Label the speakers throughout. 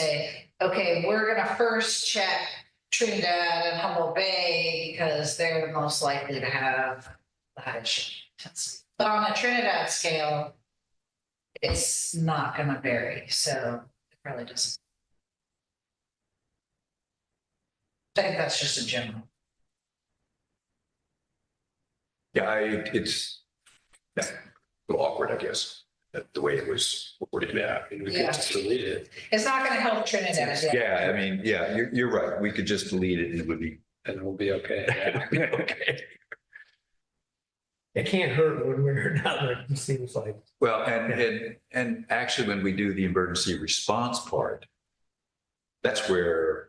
Speaker 1: say, okay, we're gonna first check Trinidad and Humboldt Bay because they're most likely to have the highest shipping intensity. But on a Trinidad scale, it's not gonna vary, so it really doesn't. I think that's just a general.
Speaker 2: Yeah, I, it's, yeah, a little awkward, I guess, that the way it was worded.
Speaker 3: Yeah, I mean, we could just delete it.
Speaker 1: It's not gonna help Trinidad, yeah.
Speaker 2: Yeah, I mean, yeah, you're, you're right. We could just delete it and it would be.
Speaker 3: And we'll be okay. Yeah.
Speaker 2: Okay.
Speaker 4: It can't hurt one way or another, it seems like.
Speaker 2: Well, and, and, and actually, when we do the emergency response part, that's where,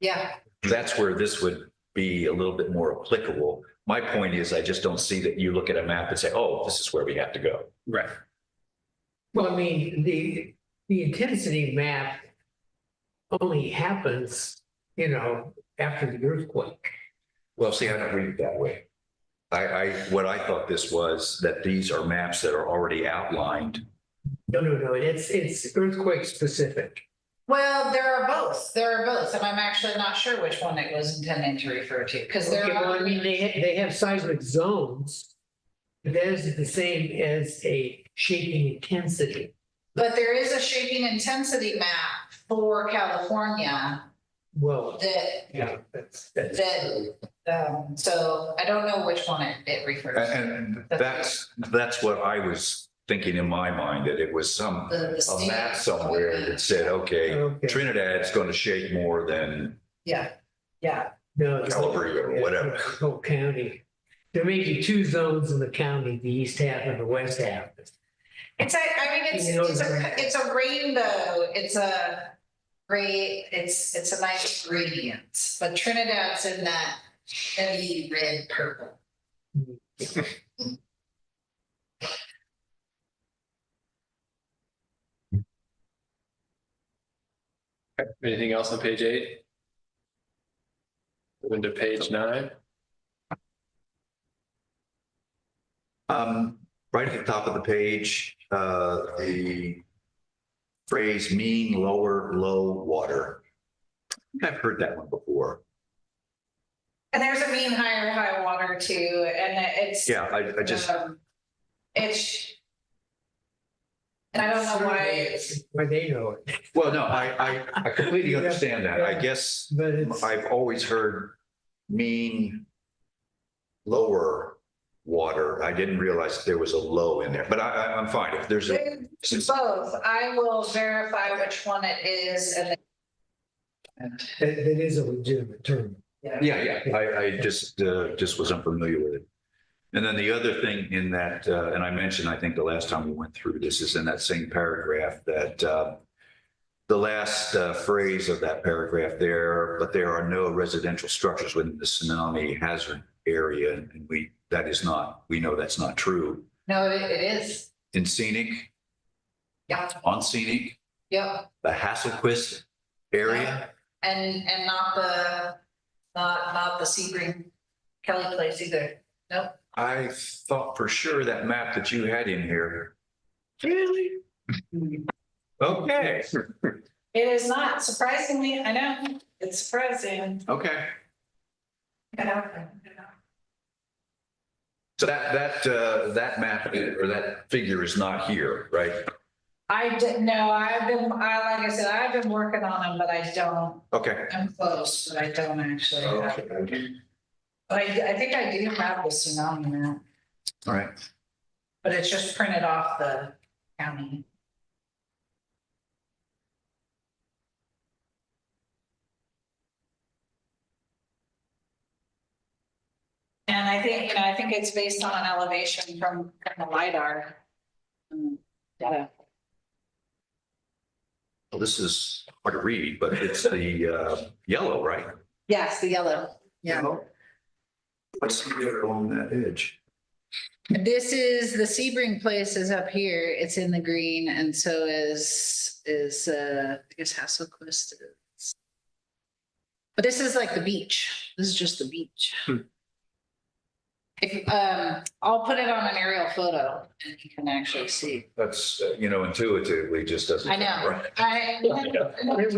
Speaker 1: Yeah,
Speaker 2: that's where this would be a little bit more applicable. My point is, I just don't see that you look at a map and say, oh, this is where we have to go.
Speaker 3: Right.
Speaker 4: Well, I mean, the, the intensity map only happens, you know, after the earthquake.
Speaker 2: Well, see, I don't read it that way. I, I, what I thought this was, that these are maps that are already outlined.
Speaker 4: No, no, no, it's, it's earthquake specific.
Speaker 1: Well, there are both, there are both, and I'm actually not sure which one it was intending to refer to, because there
Speaker 4: Okay, well, I
Speaker 1: are,
Speaker 4: mean, they, ha- they have seismic zones. but Theirs is the same as a shaking intensity.
Speaker 1: but there is a shaping intensity map for California
Speaker 4: Well,
Speaker 1: that,
Speaker 4: yeah, that's, that's.
Speaker 1: That- um, so I don't know which one it, it refers to.
Speaker 2: And that's, that's what I was thinking in my mind, that it was some,
Speaker 1: The- the
Speaker 2: a
Speaker 1: state-
Speaker 2: map somewhere that said, okay,
Speaker 4: Okay.
Speaker 2: Trinidad's going to shake more than,
Speaker 1: Yeah, yeah,
Speaker 4: No. it's-
Speaker 2: Calvary or whatever.
Speaker 4: Yeah, the Whole county. There may be two zones in the county, the east half and the west half.
Speaker 1: it's a, I mean, it's,
Speaker 4: You know,
Speaker 1: it's a,
Speaker 4: the-
Speaker 1: it's a rainbow, it's a great, it's, it's a nice gradient, but Trinidad's in that heavy red purple.
Speaker 3: Anything else on page eight? Moving to page nine,
Speaker 2: um, right at the top of the page, uh, the phrase mean lower, low water. I think I've heard that one before.
Speaker 1: And there's a mean higher high water too, and it's.
Speaker 2: Yeah, I, I just,
Speaker 1: um, It's. And I don't know why,
Speaker 4: Why they know it,
Speaker 2: well, no, I, I, I completely understand that. I guess
Speaker 4: but it's,
Speaker 2: I've always heard mean lower water. I didn't realize there was a low in there, but I, I, I'm fine. If there's a,
Speaker 1: there's both, I will verify which one it is and.
Speaker 4: that that is a legitimate term.
Speaker 1: then-
Speaker 2: yeah, yeah, I, I just, uh, just was unfamiliar with it. And then the other thing in that, uh, and I mentioned, I think the last time we went through this is in that same paragraph that, uh, the last uh, phrase of that paragraph there, but there are no residential structures within the tsunami hazard area. And we, that is not, we know that's not true.
Speaker 1: No, it it is,
Speaker 2: in scenic,
Speaker 1: yeah,
Speaker 2: on scenic,
Speaker 1: yeah,
Speaker 2: the Hasselquist area.
Speaker 1: and, and not the, not, not the Sebring Kelly place either.
Speaker 2: I thought for sure that map that you had in here.
Speaker 4: Really?
Speaker 2: Okay,
Speaker 1: It is not surprisingly, I know, it's surprising.
Speaker 2: okay.
Speaker 1: I know, I know.
Speaker 2: So that, that, uh, that map or that figure is not here, right?
Speaker 1: I didn't know, I've been, I, like I said, I've been working on them, but I don't,
Speaker 2: Okay.
Speaker 1: I'm close, but I don't actually. have it. But I, I think I do have the tsunami map,
Speaker 2: All right.
Speaker 1: but it's just printed off the county. And I think, you know, I think it's based on an elevation from from the LiDAR. um, Data.
Speaker 2: Well, this is hard to read, but it's the, uh, yellow, right?
Speaker 1: Yes, the yellow. Yeah.
Speaker 2: What's there along that edge?
Speaker 1: This is, the Sebring place is up here, it's in the green, and so is, is, uh, I guess Hasselquist is. But this is like the beach, this is just the beach.
Speaker 3: Hmm.
Speaker 1: If, um, I'll put it on an aerial photo, and you can actually see.
Speaker 2: That's, uh, you know, intuitively just doesn't.
Speaker 1: I know.
Speaker 2: Right.
Speaker 1: I,